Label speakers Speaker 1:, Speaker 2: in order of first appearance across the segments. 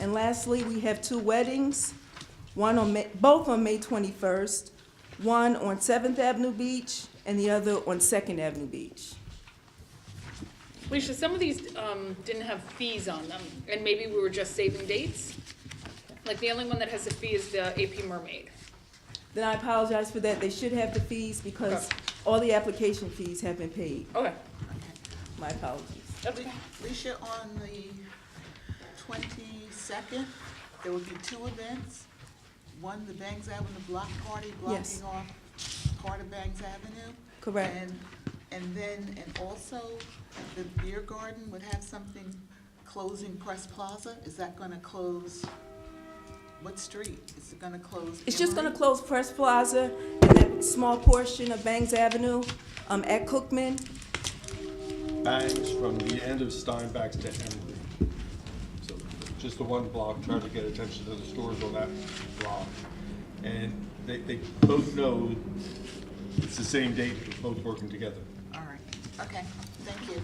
Speaker 1: And lastly, we have two weddings, one on, May- both on May 21st, one on 7th Avenue Beach and the other on 2nd Avenue Beach.
Speaker 2: Alicia, some of these um, didn't have fees on them, and maybe we were just saving dates. Like, the only one that has a fee is the AP Mermaid.
Speaker 1: Then I apologize for that. They should have the fees because all the application fees have been paid.
Speaker 2: Okay.
Speaker 1: My apologies.
Speaker 3: Alicia, on the twenty-second, there will be two events. One, the Bangs Avenue Block Party,
Speaker 1: Yes.
Speaker 3: blocking off part of Bangs Avenue.
Speaker 1: Correct.
Speaker 3: And, and then, and also, the Beer Garden would have something closing Press Plaza. Is that gonna close, what street? Is it gonna close?
Speaker 1: It's just gonna
Speaker 3: Emory?
Speaker 1: close Press Plaza and that small portion of Bangs Avenue, um, at Cookman.
Speaker 4: bangs from the end of Steinbach's to Henry. So just the one block, trying to get attention to the stores on that block. And they, they both know it's the same date, they're both working together.
Speaker 3: All right, okay, thank you.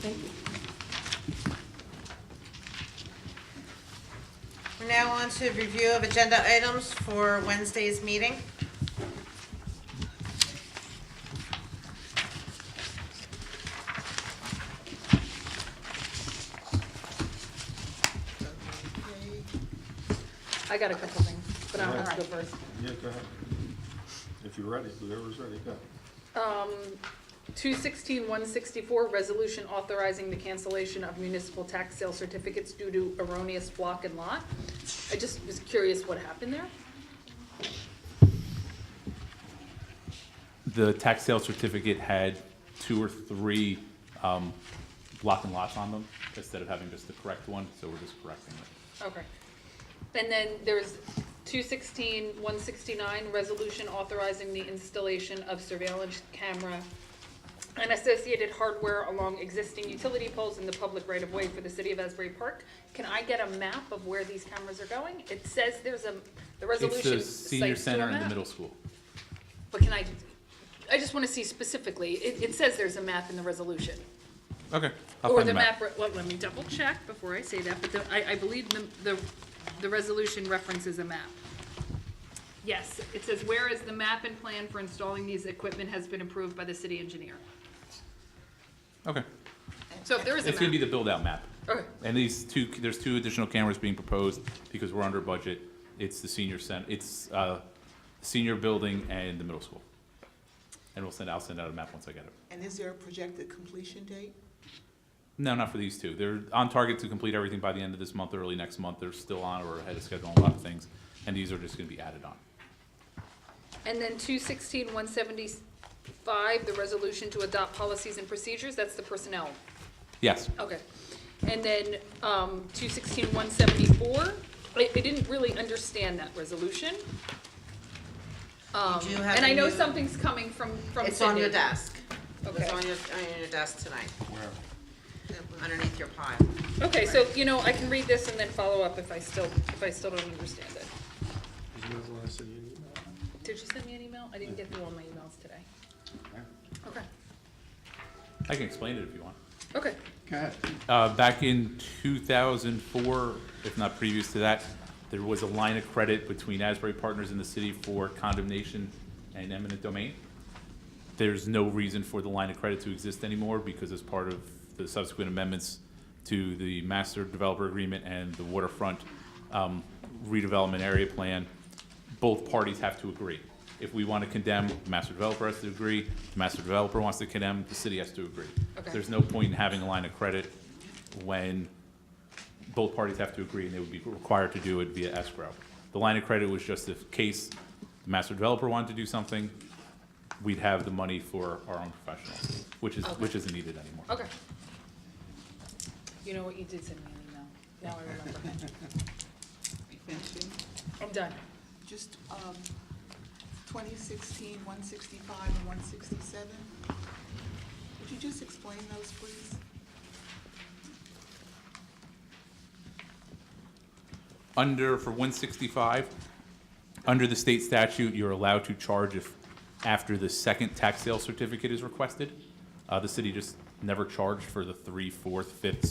Speaker 1: Thank you.
Speaker 5: We're now on to review of agenda items for Wednesday's meeting.
Speaker 3: Okay.
Speaker 2: I got a couple things, but I want to go
Speaker 3: Alright.
Speaker 2: first.
Speaker 4: Yeah, go ahead. If you're ready, whoever's ready, go.
Speaker 2: Um, 216-164, resolution authorizing the cancellation of municipal tax sale certificates due to erroneous block and lot. I just was curious what happened there.
Speaker 6: The tax sale certificate had two or three um, block and lots on them instead of having just the correct one, so we're just correcting it.
Speaker 2: Okay. And then there's 216, 169, resolution authorizing the installation of surveillance camera and associated hardware along existing utility poles in the public right-of-way for the city of Asbury Park. Can I get a map of where these cameras are going? It says there's a, the
Speaker 6: It's
Speaker 2: resolution
Speaker 6: the
Speaker 2: cites
Speaker 6: senior
Speaker 2: to a
Speaker 6: center and the
Speaker 2: map.
Speaker 6: middle school.
Speaker 2: But can I, I just want to see specifically, it, it says there's a map in the resolution.
Speaker 6: Okay. I'll
Speaker 2: Or
Speaker 6: find
Speaker 2: the
Speaker 6: the
Speaker 2: map, re- well, let me double check before I say that, but the, I, I believe the, the, the resolution references a map. Yes, it says, whereas the map and plan for installing these equipment has been approved by the city engineer.
Speaker 6: Okay.
Speaker 2: So if there is a map.
Speaker 6: It's gonna be the build-out map.
Speaker 2: Okay,
Speaker 6: And these two, there's two additional cameras being proposed because we're under budget. It's the senior center, it's uh, senior building and the middle school. And we'll send, I'll send out a map once I get it.
Speaker 3: And is there a projected completion date?
Speaker 6: No, not for these two. They're on target to complete everything by the end of this month, early next month. They're still on or ahead of schedule on a lot of things, and these are just gonna be added on.
Speaker 2: and then two sixteen, one seventy-five, the resolution to adopt policies and procedures, that's the personnel
Speaker 6: Yes,
Speaker 2: Okay. And then, um, two sixteen, one seventy-four, I, I didn't really understand that resolution. Um,
Speaker 5: do have
Speaker 2: and I
Speaker 5: a
Speaker 2: know
Speaker 5: new-
Speaker 2: something's coming from, from Sydney.
Speaker 5: It's on your desk.
Speaker 2: Okay.
Speaker 5: It's on your, on your desk tonight,
Speaker 4: Where?
Speaker 5: underneath your pile.
Speaker 2: Okay, so, you know, I can read this and then follow up if I still, if I still don't understand it.
Speaker 4: Did you guys want to send you an email?
Speaker 2: Did you send me an email? I didn't get through all my emails today. Okay,
Speaker 6: I can explain it if you want.
Speaker 2: okay.
Speaker 4: Go ahead.
Speaker 6: Uh, back in two thousand four, if not previous to that, there was a line of credit between Asbury Partners and the city for condemnation and eminent domain. There's no reason for the line of credit to exist anymore because as part of the subsequent amendments to the master developer agreement and the waterfront um, redevelopment area plan, both parties have to agree. If we want to condemn, the master developer has to agree, the master developer wants to condemn, the city has to agree.
Speaker 2: Okay.
Speaker 6: There's no point in having a line of credit when both parties have to agree, and they would be required to do it via escrow. The line of credit was just if case the master developer wanted to do something, we'd have the money for our own professionals, which is, which isn't needed anymore.
Speaker 2: Okay. You know what, you did send me an email, now I remember.
Speaker 3: Finishing?
Speaker 2: I'm done.
Speaker 3: Just, um, 2016, 165 and 167. Would you just explain those, please?
Speaker 6: Under, for one sixty-five, under the state statute, you're allowed to charge if, after the second tax sale certificate is requested. Uh, the city just never charged for the three, fourth, fifth,